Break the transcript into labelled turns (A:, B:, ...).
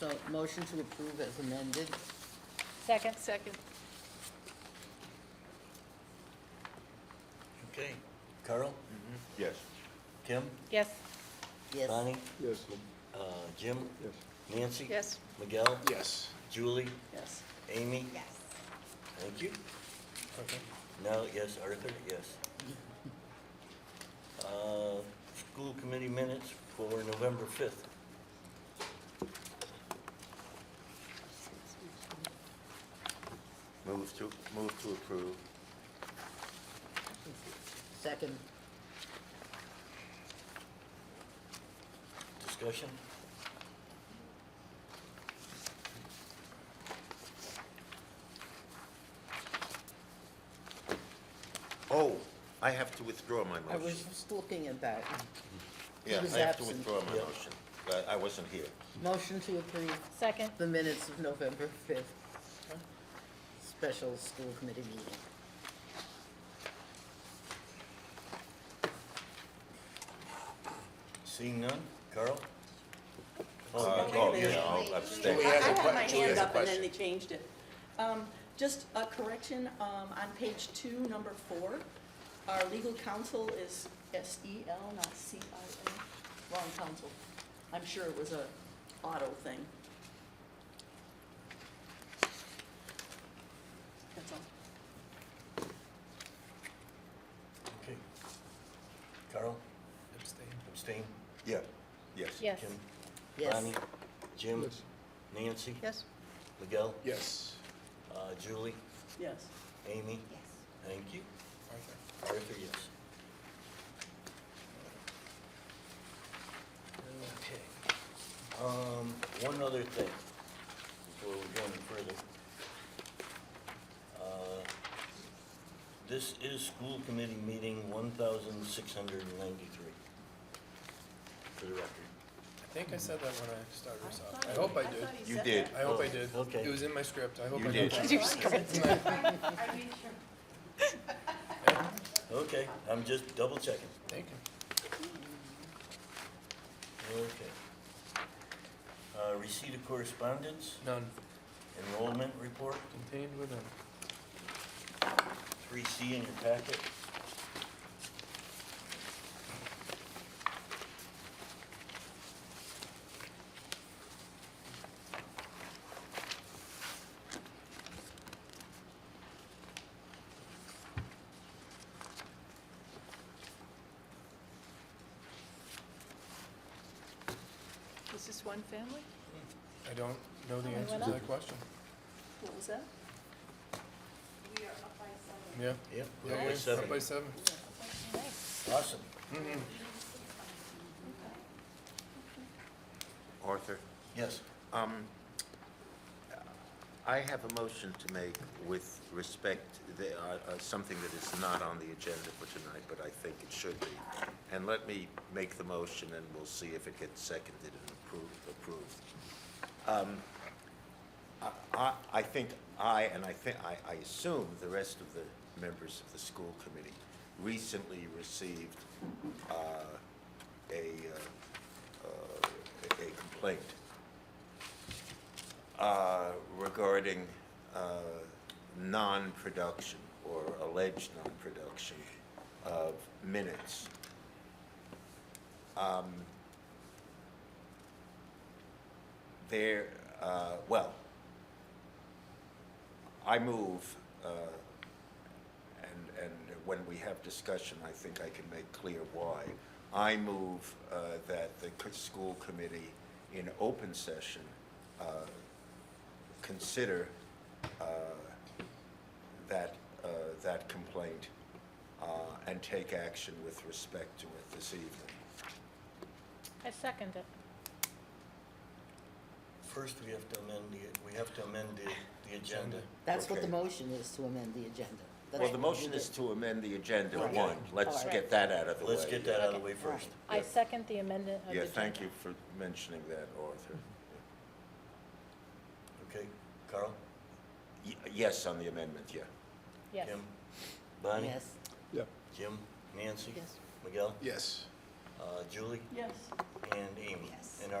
A: So motion to approve as amended.
B: Second. Second.
C: Okay. Carl?
D: Yes.
C: Kim?
B: Yes.
A: Yes.
C: Bonnie?
E: Yes.
C: Uh, Jim?
E: Yes.
C: Nancy?
B: Yes.
C: Miguel?
E: Yes.
C: Julie?
B: Yes.
C: Amy?
B: Yes.
C: Thank you. Now, yes, Arthur, yes. Uh, School committee minutes for November 5th.
D: Move to, move to approve.
A: Second.
C: Discussion?
D: Oh, I have to withdraw my
A: I
D: motion.
A: was just looking at that. he
D: Yeah,
A: was
D: I have to
A: absent.
D: withdraw my
C: Yeah.
D: motion. I, I wasn't here.
A: Motion to approve
B: Second.
A: the minutes of November 5th, special school committee meeting.
C: Seeing none? Carl?
D: Uh, Oh, yeah, I'll
F: I
D: abstain.
F: I
G: I
F: had
G: had
F: my
G: my hand
F: hand
G: up and then they changed it. Um, Just a correction, um, on page two, number four, our legal counsel is S-E-L, not C-I-L. Wrong counsel. I'm sure it was a auto thing. That's all.
C: Okay. Carl? Abstain. Abstain?
D: Yeah, yes.
B: Yes.
C: Kim?
A: Yes.
C: Bonnie? Jim?
E: Yes.
C: Nancy?
B: Yes.
C: Miguel?
E: Yes.
C: Uh, Julie?
G: Yes.
C: Amy?
B: Yes.
C: Thank you. Arthur, yes. Okay. Um, one other thing before we go any further. Uh, This is school committee meeting one thousand six hundred and ninety-three. For the record.
H: I think I said that when I started us
G: I
H: off.
G: thought-
H: I hope I
G: I
H: did.
G: thought he
D: You
G: said
D: did.
H: I hope I did.
C: Oh, okay.
H: It was in my script. I hope
D: You
H: I
D: did.
H: got that.
C: Okay, I'm just double checking.
H: Thank you.
C: Okay. Uh, receipt of correspondence,
H: None
C: enrollment report,
H: contained within.
C: three C in your packet.
B: Is this one family?
H: I don't know the
B: Only
H: answer
B: one
H: to
B: up?
H: that question.
G: What was that?
H: Yeah.
C: Yep.
H: Yeah,
C: Up by
H: yeah, Up
C: seven.
H: by seven.
B: Nice.
C: Awesome.
H: Mhm.
D: Arthur,
C: Yes.
D: um, I have a motion to make with respect, the, uh, uh, something that is not on the agenda for tonight, but I think it should be. And let me make the motion and we'll see if it gets seconded and approved, approved. I- I, I think I, and I think, I, I assume the rest of the members of the school committee recently received, uh, a, uh, uh, a complaint uh, regarding, uh, non-production or alleged non-production of minutes. Um, There, uh, well, I move, uh, and, and when we have discussion, I think I can make clear why. I move uh, that the co- school committee in open session uh, consider uh, that, uh, that complaint uh, and take action with respect to it this evening.
B: I second it.
C: First, we have to amend the, we have to amend the, the agenda.
A: That's what the
D: Okay.
A: motion is, to amend the agenda. That's
D: Well, the
A: what we
D: motion
A: did.
D: is to amend the agenda,
A: Right.
D: one. Let's
A: Alright.
D: get that out of the way.
C: Let's get that out of the way first.
B: I second the amendment of the.
D: Yeah, thank you for mentioning that, Arthur.
C: Okay, Carl?
D: Y- Yes, on the amendment, yeah.
B: Yes.
C: Kim? Bonnie?
A: Yes.
E: Yep.
C: Jim? Nancy?
A: Yes.
C: Miguel?
E: Yes.
C: Uh, Julie?
G: Yes.
C: And Amy?
G: Yes.
C: And